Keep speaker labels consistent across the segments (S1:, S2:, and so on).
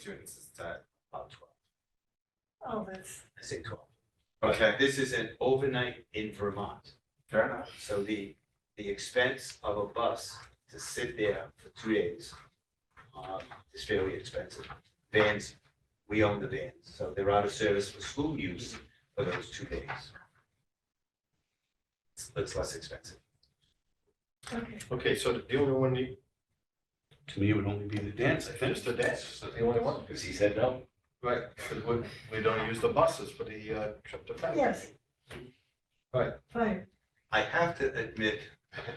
S1: students is at about twelve.
S2: Oh, that's,
S1: I say twelve. This is an overnight in Vermont.
S3: Fair enough.
S1: So the, the expense of a bus to sit there for two days um, is fairly expensive. Vans, we own the vans, so they're out of service for school use for those two days. It's- It's less expensive.
S2: okay.
S3: Okay, so the only one, you-
S4: To me, it would only be the dance, I think.
S3: just the dance, so the only one,
S5: Because he said no.
S3: right, 'cause we, we don't use the buses for the uh, trip to Fenway.
S2: Yes.
S3: Right.
S2: Fine.
S1: I have to admit,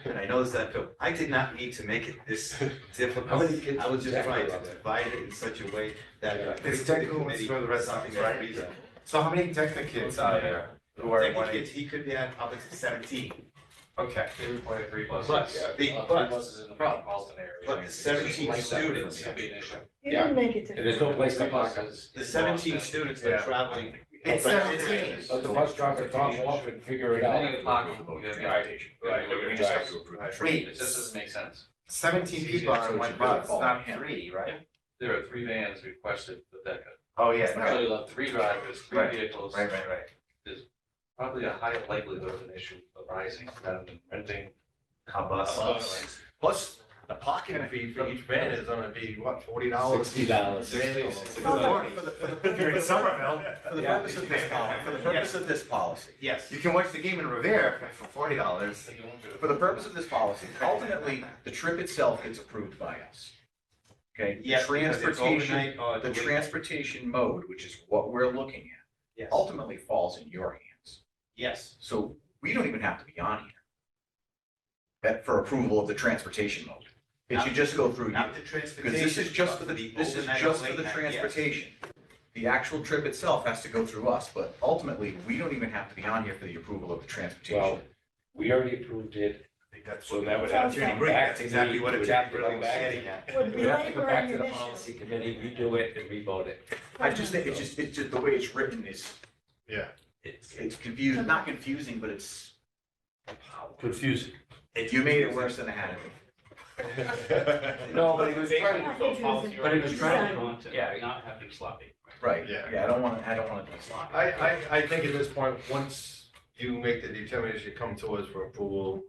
S1: and I know this, I feel, I did not need to make it this
S5: How
S1: difficult.
S5: many kids
S1: I was just
S5: exactly
S1: trying to
S5: about that?
S1: divide it in such a way that.
S3: It's
S1: technical
S3: let's throw the rest out,
S1: Something that
S3: right?
S1: reason.
S3: So how many Texas kids are there? Who are
S1: Take the
S3: wanting,
S1: kids, he could be at up to seventeen,
S3: okay, they were wanting three buses.
S5: But,
S1: Big
S5: but.
S1: bus.
S5: Buses in the metropolitan area.
S1: But the 17 students-
S5: It's gonna be an issue.
S2: You
S5: Yeah.
S2: didn't make it
S5: And
S2: difficult.
S5: there's no place to park.
S1: the seventeen students are
S3: Yeah.
S1: traveling.
S3: It's seventeen.
S5: Let the bus driver drop off and figure it out.
S6: Anything to park, you have
S5: Right.
S3: Right.
S6: We just have to approve.
S3: Wait.
S6: It just doesn't make sense.
S3: Seventeen people on one bus, not three, right?
S6: There are three vans requested for that.
S3: Oh, yeah,
S6: So
S3: right,
S6: you'll have three drivers, three
S3: Right.
S6: vehicles,
S3: right, right, right.
S6: probably a higher likelihood of an issue arising rather than renting.
S1: A
S6: a bus.
S3: Plus, the parking fee for each van is gonna be, what, forty dollars?
S4: Sixty dollars.
S3: You're in Somerville.
S1: For the purpose of this policy, for the purpose of this policy, yes.
S3: You can watch the game in Revere for forty dollars.
S5: For the purpose of this policy, ultimately, the trip itself gets approved by us. Okay, the
S1: Yes, because it's
S5: transportation,
S1: overnight or
S5: the
S1: the week-
S5: transportation mode, which is what we're looking at,
S1: Yes,
S3: Oh.
S5: ultimately falls in your hands.
S1: yes,
S5: So we don't even have to be on here. That for approval of the transportation mode. It should just go through you.
S1: not the
S5: Because
S1: transportation.
S5: this is just for the,
S1: but
S5: this is
S1: overnight or
S5: just for
S1: late
S5: the
S1: night, yes.
S5: transportation. The actual trip itself has to go through us, but ultimately, we don't even have to be on here for the approval of the transportation.
S7: Well, we already approved it, so that would have to
S2: Sounds
S7: come
S2: like-
S7: back to me.
S1: Exactly what
S7: It
S1: it
S7: would have to
S1: really
S7: come
S1: was
S7: back-
S1: getting at.
S2: Would
S7: it
S2: be
S7: would have to
S2: like
S7: come
S2: we're
S7: back
S2: in
S7: to the
S2: the
S7: policy committee, redo it and revote it.
S5: I just think, it's just, it's just the way it's written is,
S4: It's
S5: it's confusing, not confusing, but it's,
S4: confusing.
S5: you made it worse than it had to be.
S7: No, but he was trying
S2: I think it was a-
S4: But it was trying
S2: Yeah.
S4: to, yeah, not having sloppy.
S5: Right,
S3: Yeah.
S5: yeah, I don't want, to. I don't want to be sloppy.
S3: I, I, I think at this point, once you make the determination, you come to us for approval,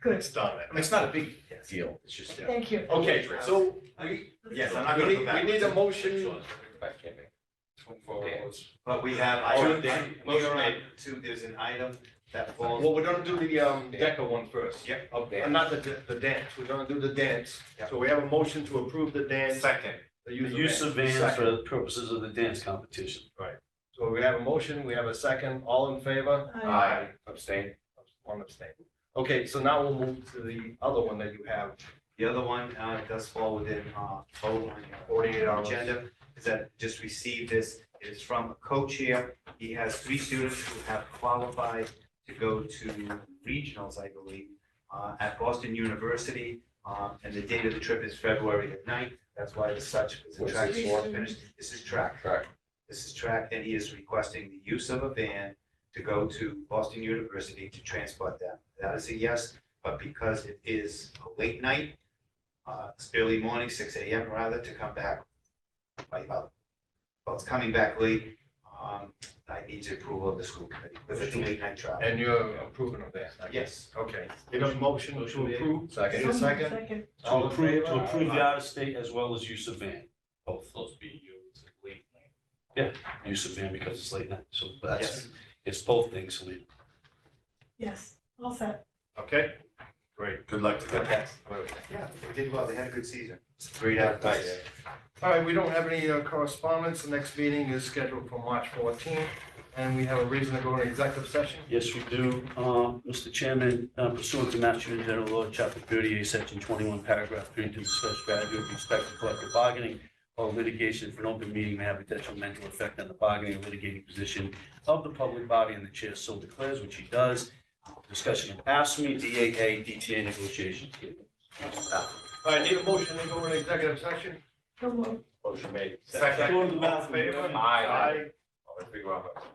S2: Good,
S3: it's done.
S5: I mean, it's not a big deal, it's just.
S2: thank you.
S3: Okay, so we,
S1: Yes, I'm not
S3: we
S1: gonna go
S3: need, we
S1: back.
S3: need a motion.
S1: But we have, I
S3: Oh,
S1: don't
S3: then-
S1: think, we are on two, there's an item that falls.
S3: Well, we're gonna do the, um, DECA one first.
S1: Yep.
S3: Uh, Not the, da- the dance, we're gonna do the dance. So we have a motion to approve the dance.
S1: Second.
S3: the
S4: The
S3: use of
S4: use
S3: van.
S4: of vans
S3: Second.
S4: for the purposes of the dance competition.
S3: So we have a motion, we have a second, all in favor?
S2: Aye.
S3: Aye.
S7: Abstain.
S3: One abstain. Okay, so now we'll move to the other one that you have.
S1: The other one, uh, does fall within, uh, vote on your
S3: Forty-eight hours.
S1: agenda, is that just received this, it is from a co-chair. He has three students who have qualified to go to regionals, I believe, uh, at Boston University. Um, and the date of the trip is February the ninth, that's why it's such, it's a
S7: What's
S1: track
S2: this
S1: sport
S2: for?
S1: finish, this is track.
S7: Track.
S1: This is track, and he is requesting the use of a van to go to Boston University to transport them. That is a yes, but because it is a late night, uh, it's early morning, six AM rather, to come back by about, well, it's coming back late. Um, I need the approval of the school committee, because it's a late night travel.
S3: And you're approving of that? I guess.
S1: Yes,
S3: Okay. Need a motion to approve? Second. Need a
S2: Someone
S3: second?
S2: Second,
S4: To
S3: All in
S4: approve,
S3: favor?
S4: to approve the out of state as well as use of van.
S6: Both those be used legally.
S4: Use of van because it's late night, so that's,
S1: yes.
S4: it's both things, Lee.
S2: yes, all set.
S3: Okay, great. Good luck to
S1: Okay. Yeah, they did well, they had a good season. Great advice.
S3: All right, we don't have any uh, correspondence. The next meeting is scheduled for March fourteenth, and we have a reason to go into executive session.
S4: Yes, we do. Um, Mr. Chairman, uh, pursuant to Mass General Law, Chapter 38, Section 21, Paragraph 3, to discuss strategy with respect to collective bargaining or litigation if an open meeting may have a detrimental effect on the bargaining or litigating position of the public body and the chair so declares, which he does. Discussion of ASME, DAA, DTA negotiations.
S3: All right, need a motion to go into executive session?
S2: Come on.
S5: Motion made.
S3: Second.
S4: Go to the
S3: All in
S4: bathroom.
S3: favor?
S5: Aye.
S3: Aye.
S5: I'll figure out.